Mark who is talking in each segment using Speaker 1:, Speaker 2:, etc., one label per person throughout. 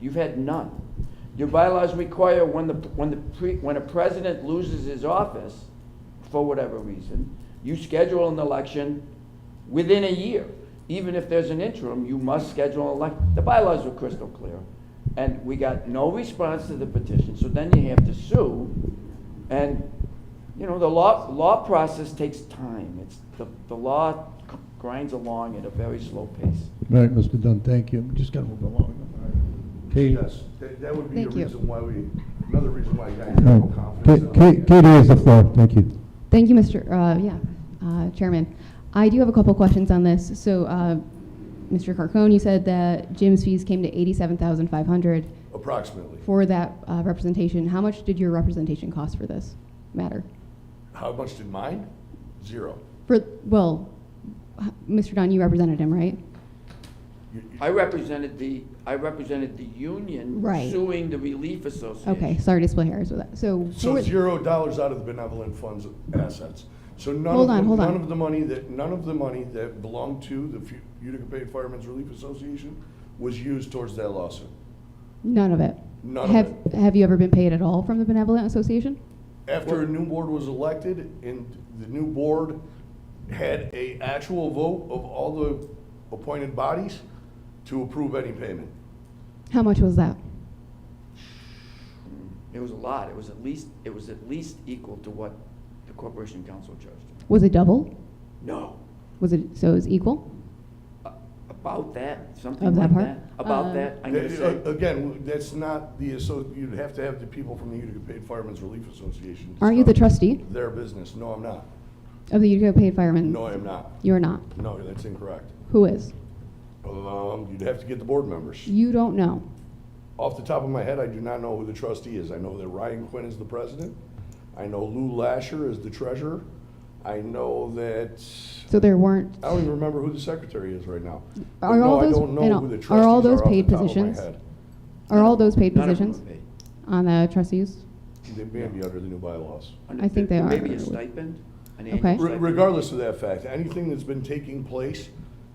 Speaker 1: You've had none. Your bylaws require when the, when the, pre- when a president loses his office, for whatever reason, you schedule an election within a year. Even if there's an interim, you must schedule an elec, the bylaws were crystal clear. And we got no response to the petition, so then you have to sue. And, you know, the law, law process takes time. It's, the, the law grinds along at a very slow pace.
Speaker 2: All right, Mr. Dunn, thank you. We Just gotta move along. Katie,
Speaker 3: Yes, that that would be a
Speaker 4: Thank you.
Speaker 3: reason why we, another reason why I got
Speaker 2: all
Speaker 3: no
Speaker 2: right.
Speaker 3: confidence. in
Speaker 2: Ka- Ka-
Speaker 3: it.
Speaker 2: Katie has the floor, thank you.
Speaker 4: Thank you, Mr., uh, yeah, uh, Chairman. I do have a couple questions on this. So, uh, Mr. Carcone, you said that Jim's fees came to 87,500
Speaker 3: Approximately.
Speaker 4: for that uh, representation. How much did your representation cost for this matter?
Speaker 3: How much did mine? Zero.
Speaker 4: For, well, h- Mr. Dunn, you represented him, right?
Speaker 3: You- you-
Speaker 1: I represented the, I represented the union
Speaker 4: Right.
Speaker 1: suing the Relief Association.
Speaker 4: Okay, sorry to split hairs with that. So,
Speaker 3: So
Speaker 4: for-
Speaker 3: zero dollars out of the benevolent funds assets. So none of,
Speaker 4: Hold on,
Speaker 3: the-
Speaker 4: hold
Speaker 3: none
Speaker 4: on.
Speaker 3: of the money that, none of the money that belonged to the Fu- Utica Bay Firemen's Relief Association was used towards that lawsuit.
Speaker 4: none of it?
Speaker 3: None of
Speaker 4: Have-
Speaker 3: it.
Speaker 4: Have you ever been paid at all from the Benevolent Association?
Speaker 3: After a new board was elected and the new board had a actual vote of all the appointed bodies to approve any payment.
Speaker 4: How much was that?
Speaker 1: Mm. It was a lot. It was at least, it was at least equal to what the Corporation Council charged.
Speaker 4: Was it double?
Speaker 1: No.
Speaker 4: Was it, so it was equal?
Speaker 1: A- About that, something
Speaker 4: Of that
Speaker 1: like
Speaker 4: part?
Speaker 1: that. About
Speaker 4: Uh,
Speaker 1: that, I'm gonna
Speaker 3: That-
Speaker 1: say,
Speaker 3: Again, that's not the, so you'd have to have the people from the Utica Paid Firemen's Relief Association. to
Speaker 4: Aren't you the
Speaker 3: stop
Speaker 4: trustee
Speaker 3: Their business. No, I'm not.
Speaker 4: of the Utica Paid Firemen?
Speaker 3: No, I'm not.
Speaker 4: You're not.
Speaker 3: No, that's incorrect.
Speaker 4: Who is?
Speaker 3: Um, you'd have to get the board members.
Speaker 4: You don't know.
Speaker 3: Off the top of my head, I do not know who the trustee is. I know that Ryan Quinn is the president. I know Lou Lasher is the treasurer. I know that,
Speaker 4: So there weren't.
Speaker 3: I don't even remember who the secretary is right now. But
Speaker 4: Are
Speaker 3: no,
Speaker 4: all
Speaker 3: I
Speaker 4: those-
Speaker 3: don't know
Speaker 4: and all-
Speaker 3: who the
Speaker 4: are
Speaker 3: trustees
Speaker 4: all those
Speaker 3: off the
Speaker 4: paid
Speaker 3: top of my
Speaker 4: positions?
Speaker 3: head.
Speaker 4: Are all those paid
Speaker 1: none of them
Speaker 4: positions
Speaker 1: are paid.
Speaker 4: on the trustees?
Speaker 3: They may be under the new bylaws.
Speaker 1: Under-
Speaker 4: I think they
Speaker 1: there
Speaker 4: are.
Speaker 1: may be a stipend, an annual
Speaker 4: Okay. Re-
Speaker 3: Re-
Speaker 1: stipend.
Speaker 3: Regardless of that fact, anything that's been taking place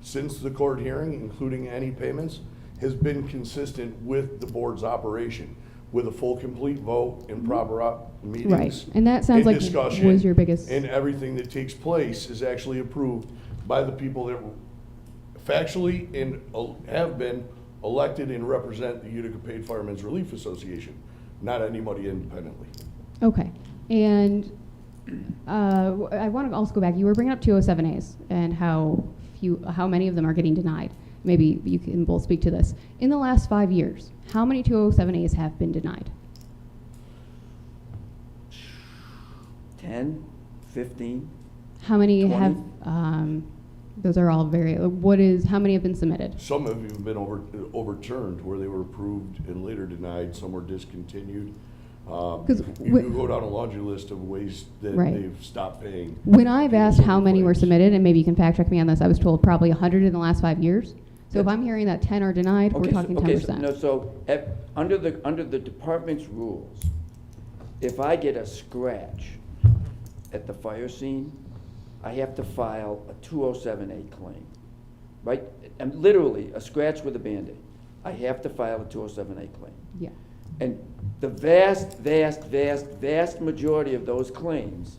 Speaker 3: since the court hearing, including any payments, has been consistent with the board's operation, with a full, complete vote and proper op- meetings.
Speaker 4: Mm-hmm. Right. And that sounds like
Speaker 3: discussion,
Speaker 4: was your biggest-
Speaker 3: And everything that takes place is actually approved by the people that factually and el- have been elected and represent the Utica Paid Firemen's Relief Association, not anybody independently.
Speaker 4: Okay. And uh, w- I want to also go back. You were bringing up 207As and how few, how many of them are getting denied. Maybe you can both speak to this. In the last five years, how many 207As have been denied?
Speaker 1: Ten, fifteen,
Speaker 4: How many have?
Speaker 1: 20.
Speaker 4: Um, those are all very. What is? How many have been submitted?
Speaker 3: Some have even been over, overturned where they were approved and later denied, some were discontinued. Um,
Speaker 4: 'Cause
Speaker 3: You
Speaker 4: wh-
Speaker 3: do go down a laundry list of ways that
Speaker 4: Right.
Speaker 3: they've stopped paying.
Speaker 4: When I've asked how many were
Speaker 3: Ways.
Speaker 4: submitted, and maybe you can fact check me on this, I was told probably 100 in the last five years. So if I'm hearing that 10 are denied, we're
Speaker 1: Okay, so-
Speaker 4: talking
Speaker 1: okay, so-
Speaker 4: 10%.
Speaker 1: No, so, if- under the, under the department's rules, if I get a scratch at the fire scene, I have to file a two oh seven A claim, right? And literally, a scratch with a Band-Aid, I have to file a two oh seven A claim.
Speaker 4: Yeah,
Speaker 1: And the vast, vast, vast, vast majority of those claims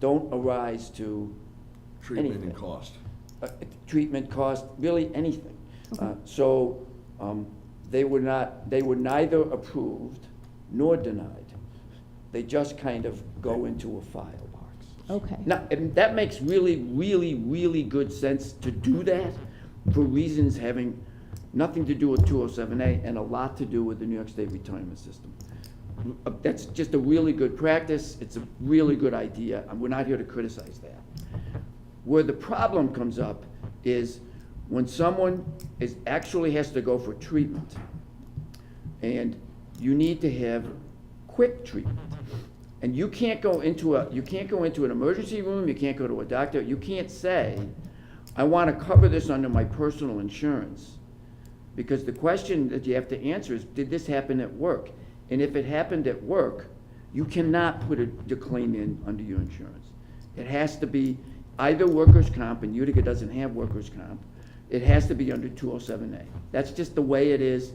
Speaker 1: don't arise to
Speaker 3: Treatment
Speaker 1: Anything.
Speaker 3: and cost.
Speaker 1: uh, treatment cost, really anything.
Speaker 4: Okay.
Speaker 1: Uh, So um, they were not, they were neither approved nor denied. They just kind of go into a file box.
Speaker 4: okay.
Speaker 1: Now, and that makes really, really, really good sense to do that for reasons having nothing to do with 207A and a lot to do with the New York State retirement system. Uh, That's just a really good practice, it's a really good idea, and we're not here to criticize that. Where the problem comes up is when someone is, actually has to go for treatment, and you need to have quick treatment. And you can't go into a, you can't go into an emergency room, you can't go to a doctor, you can't say, I want to cover this under my personal insurance. Because the question that you have to answer is, did this happen at work? And if it happened at work, you cannot put a, your claim in under your insurance. It has to be either workers' comp, and Utica doesn't have workers' comp, it has to be under two oh seven A. That's just the way it is,